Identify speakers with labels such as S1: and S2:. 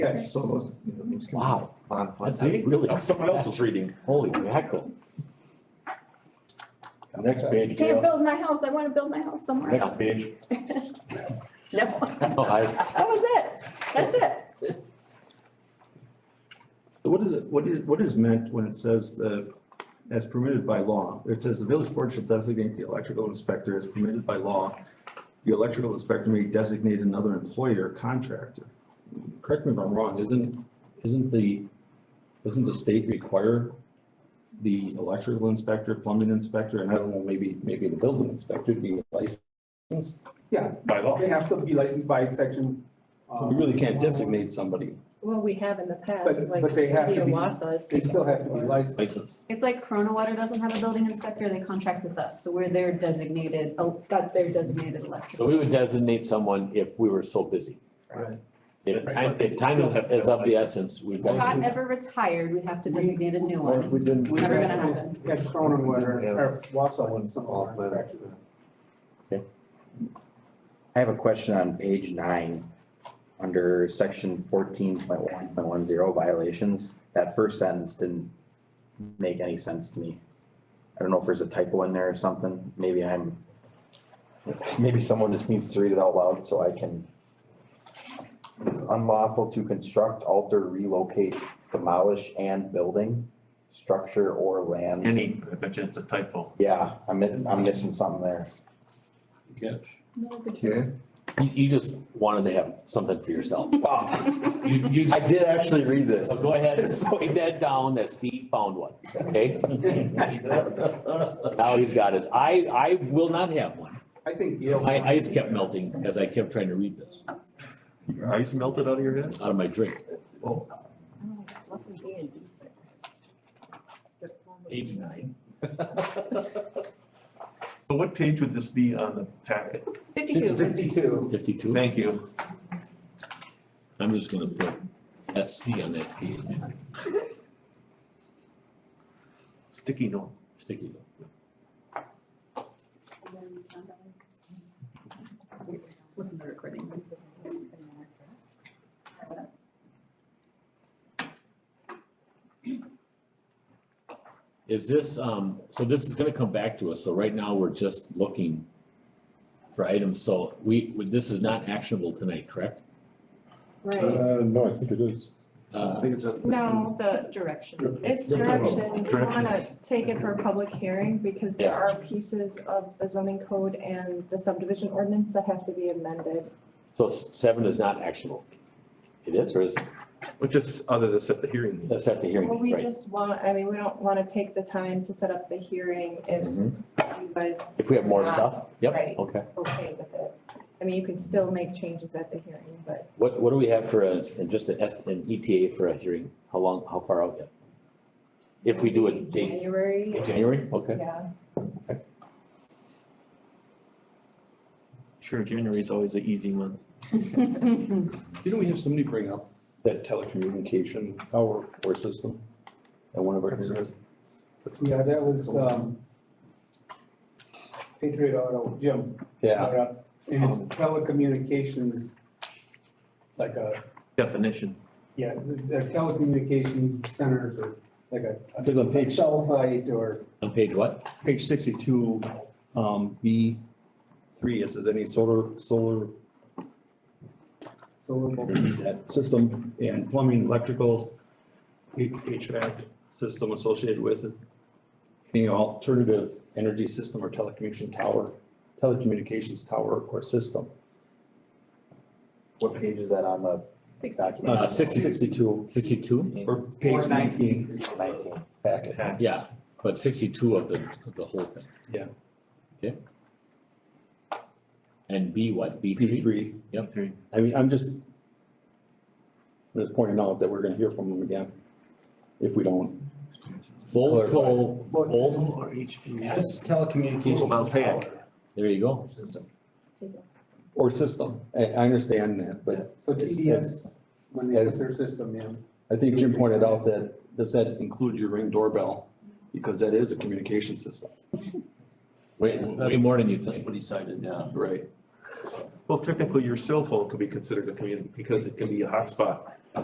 S1: Yeah, so those, you know, those can be
S2: Wow,
S1: on- on-
S2: that's really,
S3: Someone else was reading.
S2: holy mackerel. Next page,
S4: Can't
S2: Gail.
S4: build my house, I wanna build my house somewhere else.
S2: Next page.
S4: No, that
S2: No, I-
S4: was it, that's it.
S1: So what is it, what is, what is meant when it says the, as permitted by law? It says the village board shall designate the electrical inspector as permitted by law. The electrical inspector may designate another employer or contractor. Correct me if I'm wrong, isn't, isn't the, doesn't the state require the electrical inspector, plumbing inspector, and I don't know, maybe, maybe the building inspector to be licensed
S5: Yeah,
S1: by law?
S5: they have to be licensed by section.
S1: So
S5: uh,
S1: we really can't designate somebody
S6: Well, we have in the past,
S5: But-
S6: like
S5: but they have
S6: City
S5: to
S6: of
S5: be-
S6: Wausau is.
S5: They still have to be licensed.
S1: licensed.
S7: It's like Corona Water doesn't have a building inspector, they contract with us, so we're their designated, oh, Scott's their designated
S2: So
S7: electrical.
S2: we would designate someone if we were so busy.
S1: Right.
S2: If time, if time is is of the essence, we've
S7: If
S2: got.
S7: Scott ever retired, we have to designate a new
S3: Or if
S7: one.
S3: we didn't.
S7: It's never gonna happen.
S5: Yeah, Cronin, whether, or Wausau, and some
S3: All
S5: of our
S3: planned.
S5: inspectors.
S8: I have a question on page nine, under section fourteen point one point one zero violations. That first sentence didn't make any sense to me. I don't know if there's a typo in there or something. Maybe I'm, maybe someone just needs to read it out loud so I can. It's unlawful to construct, alter, relocate, demolish and building, structure or land.
S3: Any, I bet you it's a typo.
S8: Yeah, I'm, mi- I'm missing something there.
S1: Okay.
S2: You, you just wanted to have something for yourself.
S8: Wow,
S2: You, you,
S8: I did actually read this.
S2: so go ahead and write that down that Steve found one, okay? Now he's got his, I, I will not have one.
S5: I think Gail.
S2: My ice kept melting as I kept trying to read this
S3: Your ice melted out of your head?
S2: out of my drink. Page nine.
S3: So what page would this be on the packet?
S7: Fifty-two,
S5: Fifty-two.
S2: Fifty-two.
S3: Thank you.
S2: I'm just gonna put SC on that page,
S3: Sticky note.
S2: sticky.
S7: listen to the recording.
S2: Is this, um, so this is gonna come back to us, so right now we're just looking for items, so we, this is not actionable tonight, correct?
S6: Right,
S9: no, I think it is.
S2: Uh,
S3: it's a.
S6: no,
S7: That's
S6: the,
S7: direction.
S6: it's
S2: Different
S6: direction, you
S3: direction.
S6: wanna take it for a public hearing, because there
S2: Yeah.
S6: are pieces of the zoning code and the subdivision ordinance that have to be amended.
S2: so s- seven is not actionable. It is, or is, it?
S3: Which is other than set the hearing.
S2: that's at the hearing,
S6: Well, we
S2: right?
S6: just want, I mean, we don't wanna take the time to set up the hearing if you guys
S2: Mm-hmm. If we have more stuff, yep,
S6: Right.
S2: okay.
S6: okay with it. I mean, you can still make changes at the hearing, but
S2: What, what do we have for a, and just an S, an ETA for a hearing? How long, how far out yet? If we do a date,
S6: January,
S2: in January, okay.
S6: yeah.
S3: Sure, January is always an easy one.
S1: Didn't we have somebody bring up that telecommunication power or system at one of our
S5: That's
S1: hearings?
S5: Yeah, that was, um, Patriot Auto, Jim. brought up, And it's telecommunications, like a,
S3: Definition.
S5: yeah, the telecommunications centers or like a-
S1: Because on
S5: a
S1: page,
S5: cell site or
S2: On page what?
S1: page sixty-two, um, B three, it says any solar, solar
S5: solar
S1: will be that system and plumbing, electrical, H- HVAC system associated with it. any alternative energy system or telecommunication tower, telecommunications tower or system.
S8: What page is that on the
S7: Sixty-two.
S8: document?
S2: Uh, sixty-
S1: Sixty-two
S2: Sixty-two?
S1: or page nineteen
S8: Nineteen.
S1: packet.
S2: Yeah, but sixty-two of the, of the whole thing.
S1: Yeah.
S2: Okay. And B what, B
S1: B
S2: three?
S1: three,
S2: Yep.
S3: Three.
S1: I mean, I'm just, I'm just pointing out that we're gonna hear from them again if we don't.
S2: Full toll, full,
S3: Or HP.
S9: That's telecommunications.
S3: Well, Pam.
S9: tower.
S2: there you go.
S6: take it.
S1: Or system, I, I understand that, but
S5: So TDS, when they put
S1: As-
S5: their system in,
S1: I think Jim pointed out that, does that include your ring doorbell? Because that is a communication system,
S2: Way, way more than you think.
S9: what he cited, yeah.
S1: right?
S3: Well, technically, your cell phone could be considered a community because it can be a hotspot.